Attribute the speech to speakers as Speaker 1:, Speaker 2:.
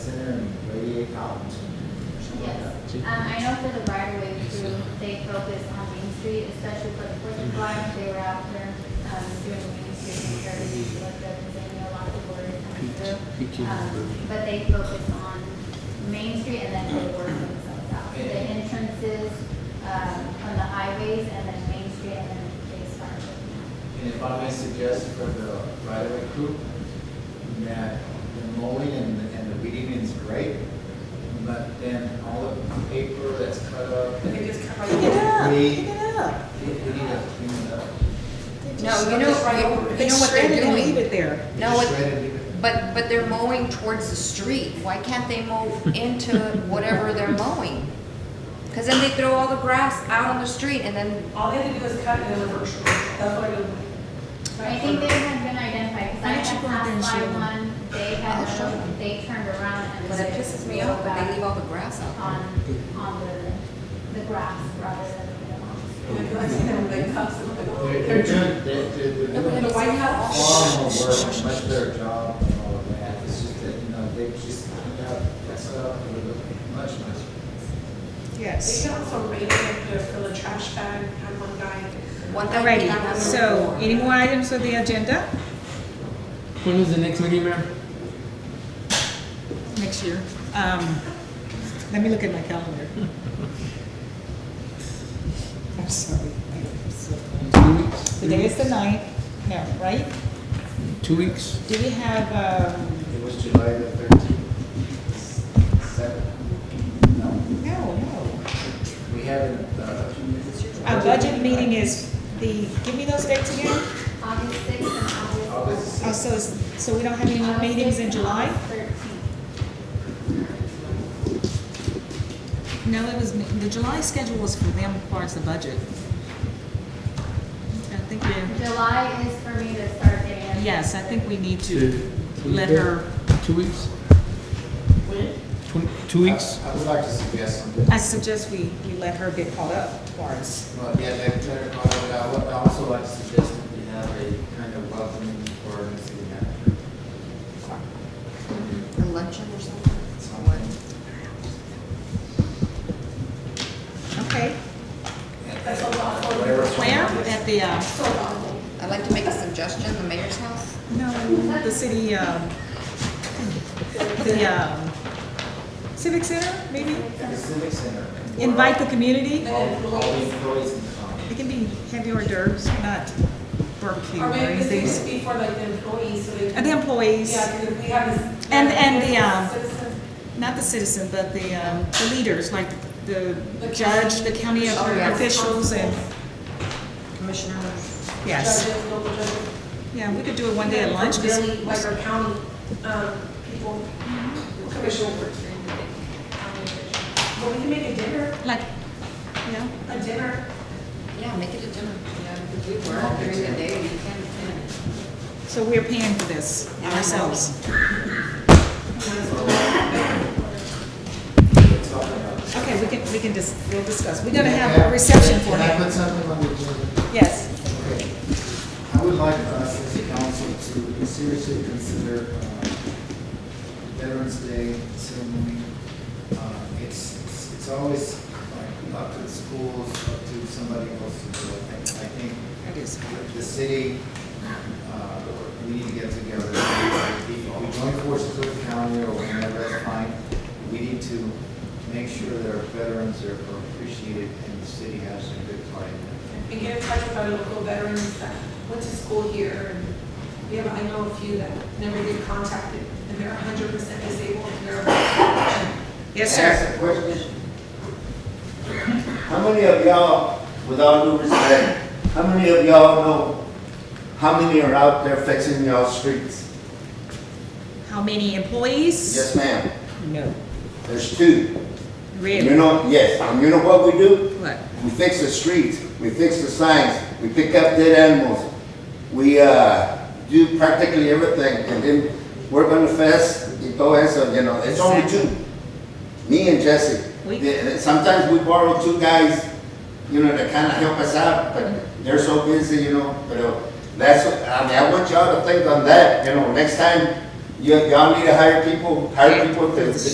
Speaker 1: Nancy?
Speaker 2: Um, I know for the right of way crew, they focus on Main Street, especially for the Fourth of July, if they were out there, um, doing Main Street and everything, so like that, because they knew a lot of people were coming through. Um, But they focus on Main Street and then they work themselves out. The entrances, um, on the highways and then Main Street and then they start. with-
Speaker 3: And if I may suggest for the right-of-way crew, that the mowing and the, and the weeding is great, but then all the paper that's cut up,
Speaker 4: We
Speaker 3: we,
Speaker 4: could just cut right
Speaker 5: Pick it up,
Speaker 3: We-
Speaker 5: pick it up.
Speaker 3: we need to clean it up.
Speaker 6: No, you know,
Speaker 4: Right over
Speaker 6: you-
Speaker 4: it.
Speaker 6: you know what they're
Speaker 5: Shred it and Leave
Speaker 6: doing?
Speaker 5: it there.
Speaker 6: No,
Speaker 3: Just
Speaker 6: it-
Speaker 3: shred and leave it.
Speaker 6: But, but they're mowing towards the street. Why can't they mow into whatever they're mowing? Because then they throw all the grass out on the street and then,
Speaker 4: All they have to do is cut and then reverse. That's what I do.
Speaker 2: I think they had been identified, because I
Speaker 5: Why don't you
Speaker 2: had
Speaker 5: go out there and
Speaker 2: passed by
Speaker 5: show them?
Speaker 2: one, they
Speaker 6: I'll show
Speaker 2: had,
Speaker 6: them.
Speaker 2: they turned around and.
Speaker 6: but it pisses me off, but they leave all the grass out.
Speaker 2: on, on the, the grass rather than the lawns.
Speaker 4: And I see them, they cut some of
Speaker 3: They're,
Speaker 4: it.
Speaker 3: they're doing, they're, they're- they're
Speaker 6: No, but
Speaker 3: doing
Speaker 6: in the White House-
Speaker 3: far more work, much better job than all of that. It's just that, you know, they just, cleaned up, that's up, it would look much, much.
Speaker 4: They
Speaker 5: Yes.
Speaker 4: can also rate it if they're for the trash bag, have one guy.
Speaker 6: One thing we
Speaker 5: Alrighty,
Speaker 6: have on the
Speaker 5: so
Speaker 6: floor.
Speaker 5: any more items on the agenda
Speaker 1: When is the next meeting, Mayor?
Speaker 5: next year? Um, let me look at my calendar. I'm sorry. I'm so-
Speaker 1: Two weeks?
Speaker 5: Today is the ninth, no, right?
Speaker 1: Two weeks?
Speaker 5: Do we have, um,
Speaker 3: It was July the thirteenth, seven, no,
Speaker 5: no, no.
Speaker 3: we haven't, uh,
Speaker 5: Our budget meeting is the, give me those dates again.
Speaker 2: August sixth and August.
Speaker 3: August
Speaker 5: Oh, so, it's- so we don't have any more meetings in July?
Speaker 2: Thirteenth.
Speaker 5: No, it was, the July schedule was for them, as far as the budget. I think we,
Speaker 2: July is for me to start getting.
Speaker 5: yes, I think we need to
Speaker 1: Two-
Speaker 5: let her,
Speaker 1: Two weeks? When? Two weeks?
Speaker 3: I I would like to suggest something.
Speaker 5: I suggest we, we let her get caught up for us.
Speaker 3: Well, yeah, that, that, but I would also like to suggest that we have a kind of welcoming for the city manager.
Speaker 6: Election or something?
Speaker 3: Someone,
Speaker 5: Okay,
Speaker 4: That's a lot for
Speaker 3: whatever.
Speaker 5: where,
Speaker 3: someone is.
Speaker 5: at the, uh,
Speaker 4: So long.
Speaker 6: I'd like to make a suggestion, the mayor's house.
Speaker 5: no, the city, um, the, um, Civic Center, maybe?
Speaker 3: At the civic center.
Speaker 5: Invite the community,
Speaker 3: All, all the employees can come.
Speaker 5: it can be heavy hors d'oeuvres, not barbecue
Speaker 4: Or
Speaker 5: or
Speaker 4: maybe this needs to
Speaker 5: anything.
Speaker 4: be for like the employees, so they.
Speaker 5: And the employees.
Speaker 4: Yeah, because we have this.
Speaker 5: And- and the, um,
Speaker 4: Citizens.
Speaker 5: not the citizen, but the, um, the leaders, like the judge, the county
Speaker 4: Oh, yes.
Speaker 5: officials, and,
Speaker 6: Commissioners.
Speaker 5: yes.
Speaker 4: Judges, local judges.
Speaker 5: Yeah, we could do it one day at lunch, 'cause-
Speaker 4: Really, like our county, um, people, commissioners. But we can make a dinner,
Speaker 5: like, yeah,
Speaker 4: a dinner.
Speaker 6: Yeah, make it a dinner. Yeah, because we work during the day, we can't.
Speaker 5: so we're paying for this ourselves. Okay, we can, we can just, we'll discuss. We're gonna have a reception for
Speaker 3: Can I
Speaker 5: him.
Speaker 3: put something on the agenda?
Speaker 5: Yes,
Speaker 3: Okay. I would like us as a council to seriously consider uh, Veterans Day ceremony. Uh, It's, it's it's always like up to the schools, up to somebody else to do it. I I think
Speaker 5: that is,
Speaker 3: the city, uh, we need to get together. If We join forces with the county or whenever that's fine. We need to make sure that our veterans are are appreciated and the city has a good part in that.
Speaker 4: and get in touch with our local veterans that went to school here. and We have, I know a few that never get contacted, and they're hundred percent disabled, and they're.
Speaker 5: yes,
Speaker 7: Can I
Speaker 5: sir.
Speaker 7: ask a question? How many of y'all, with all due respect, how many of y'all know how many are out there fixing y'all streets?
Speaker 5: How many employees?
Speaker 7: Yes, ma'am.
Speaker 5: No.
Speaker 7: There's two. You
Speaker 5: Really?
Speaker 7: know, yes, and you know what we do?
Speaker 5: What?
Speaker 7: We fix the streets, we fix the signs, we pick up dead animals. We, uh, do practically everything, and then we're gonna fest, y todo eso, uh, you know, it's only two. Me and Jesse.
Speaker 5: We-
Speaker 7: The- Sometimes we borrow two guys, you know, to kinda help us out, but they're so busy, you know, but uh, that's, I mean, I want y'all to think on that, you know, next time, you, y'all need to hire people, hire people to, to